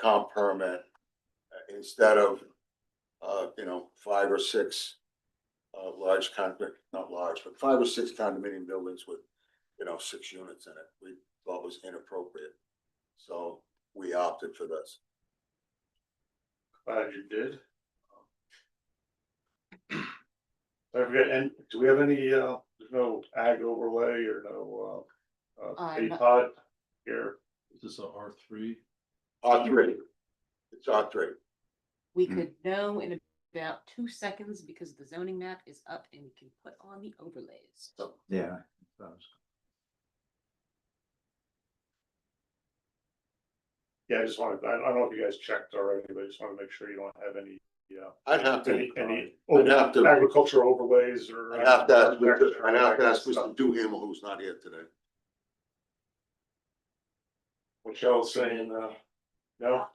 comp permit uh, instead of, uh, you know, five or six uh, large condominium, not large, but five or six condominium buildings with, you know, six units in it. We thought was inappropriate. So we opted for this. Glad you did. Um, I forget, and do we have any, uh, there's no ag overlay or no, uh, uh, Uh, hay no. pot here? This is a R three. R three. It's R three. We Mm. could know in about two seconds because the zoning map is up and we can put on the overlays. So Yeah. Yeah, I just wanted, I, I don't know if you guys checked already, but I just wanna make sure you don't have any, uh, I'd have to, any, any Oh, I'd have to, agricultural overlays or. I'd have to ask, Mr. I'd have to ask Mr. Duham, who's not here today. Michelle's saying, uh, no,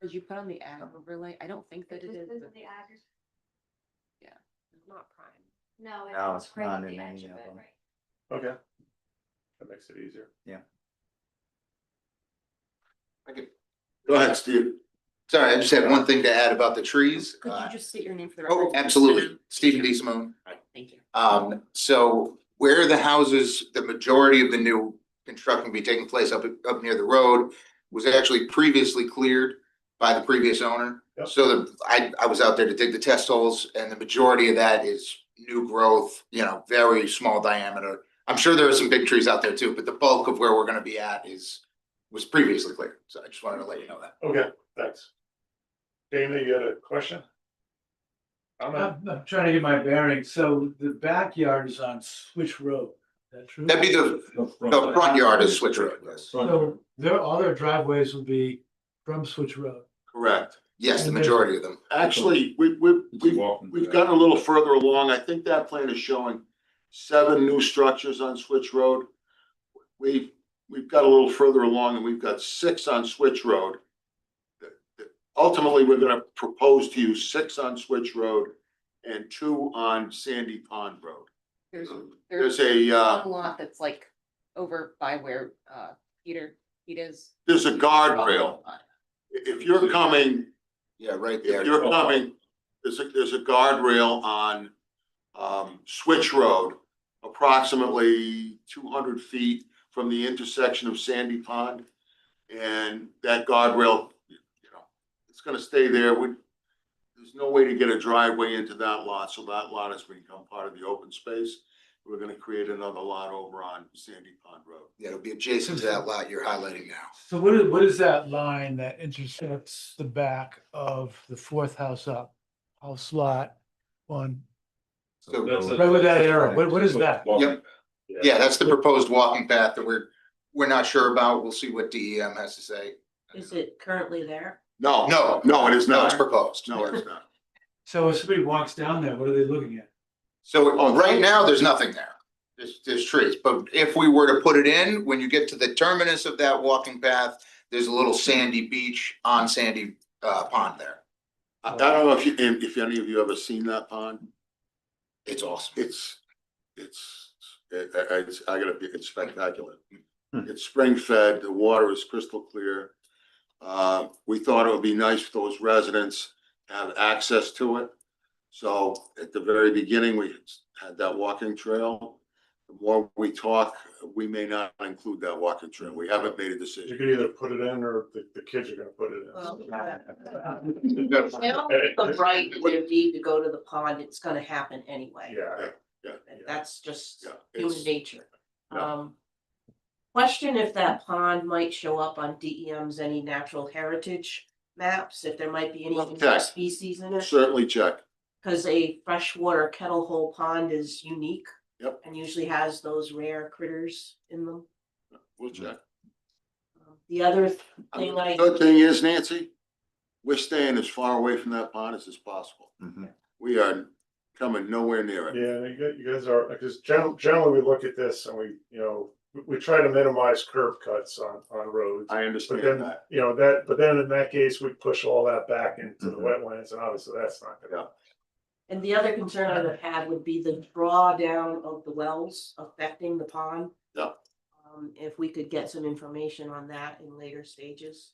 did you put on the ag overlay? I don't think that it is. but- Not prime. No. No, it's it's right not at in the any edge of it, them. right. okay. That makes it easier. Go ahead, Steve. Sorry, I just had one thing to add about the trees. Could Uh, you just state your name for the record? Oh, absolutely. Stephen D. Simone. Alright, Thank you. Um, so where the houses, the majority of the new construction be taking place up, up near the road was actually previously cleared by the previous owner. Yep. So the, I, I was out there to dig the test holes and the majority of that is new growth, you know, very small diameter. I'm sure there are some big trees out there too, but the bulk of where we're gonna be at is, was previously cleared. So I just wanted to let you know that. Okay, thanks. Dana, you had a question? Comment? I'm, I'm trying to get my bearings. So the backyard is on Switch Road. Is that true? That'd be the, the front yard is Switch Road, yes. So their, all their driveways would be from Switch Road. Correct. Yes, the majority of them. Actually, we, we, we've, we've gotten a little further along. I think that plan is showing seven new structures on Switch Road. We've, we've got a little further along and we've got six on Switch Road. Ultimately, we're gonna propose to you six on Switch Road and two on Sandy Pond Road. There's, There's there's a, uh, one lot that's like over by where, uh, Peter, Pete is. there's a guardrail. Oh, I- If you're coming, Yeah, right there. if you're coming, there's a, there's a guardrail on, um, Switch Road, approximately two hundred feet from the intersection of Sandy Pond. And that guardrail, you know, it's gonna stay there. We, there's no way to get a driveway into that lot, so that lot has become part of the open space. We're gonna create another lot over on Sandy Pond Road. Yeah, it'll be adjacent to that lot you're highlighting now. So what is, what is that line that intersects the back of the fourth house up? House lot one, So, right with that arrow. What, what is that? yep. Yeah, that's the proposed walking path that we're, we're not sure about. We'll see what DEM has to say. Is it currently there? No, No. no, it is No, it's not. proposed. No, it's not. So if somebody walks down there, what are they looking at? Oh, So right now, there's nothing there. There's, there's trees, but if we were to put it in, when you get to the terminus of that walking path, there's a little sandy beach on sandy, uh, pond there. I I don't know if you, if any of you ever seen that pond. It's awesome. It's, it's, it- I, I, it's- I gotta be, it's spectacular. It's spring fed, the water is crystal clear. Uh, we thought it would be nice for those residents to have access to it. So at the very beginning, we had that walking trail. The more we talk, we may not include that walking trail. We haven't made a You decision. could either put it in or the, the kids are gonna put it in. The right and their need to go to the pond, it's gonna happen anyway. Yeah, Yeah, yeah. That's just yeah, human it's- nature. Yeah. Um. Question if that pond might show up on DEM's any natural heritage maps, if there might be any Well, invasive check. species in it. Certainly check. Cause a freshwater kettle hole pond is unique. Yep. And usually has those rare critters in them. We'll check. Um, The other th- I mean, thing I. Good thing is, Nancy, we're staying as far away from that pond as is possible. Mm-hmm. We are coming nowhere near it. Yeah, you guys, you guys are, because generally, generally we look at this and we, you know, we, we try to minimize curb cuts on, on roads. I But understand then, that. you know, that, but then in that case, we push all that back into the Mhm. wetlands and obviously that's not gonna. Yeah. And the other concern I would have would be the drawdown of the wells affecting the pond. Yep. Um, if we could get some information on that in later stages.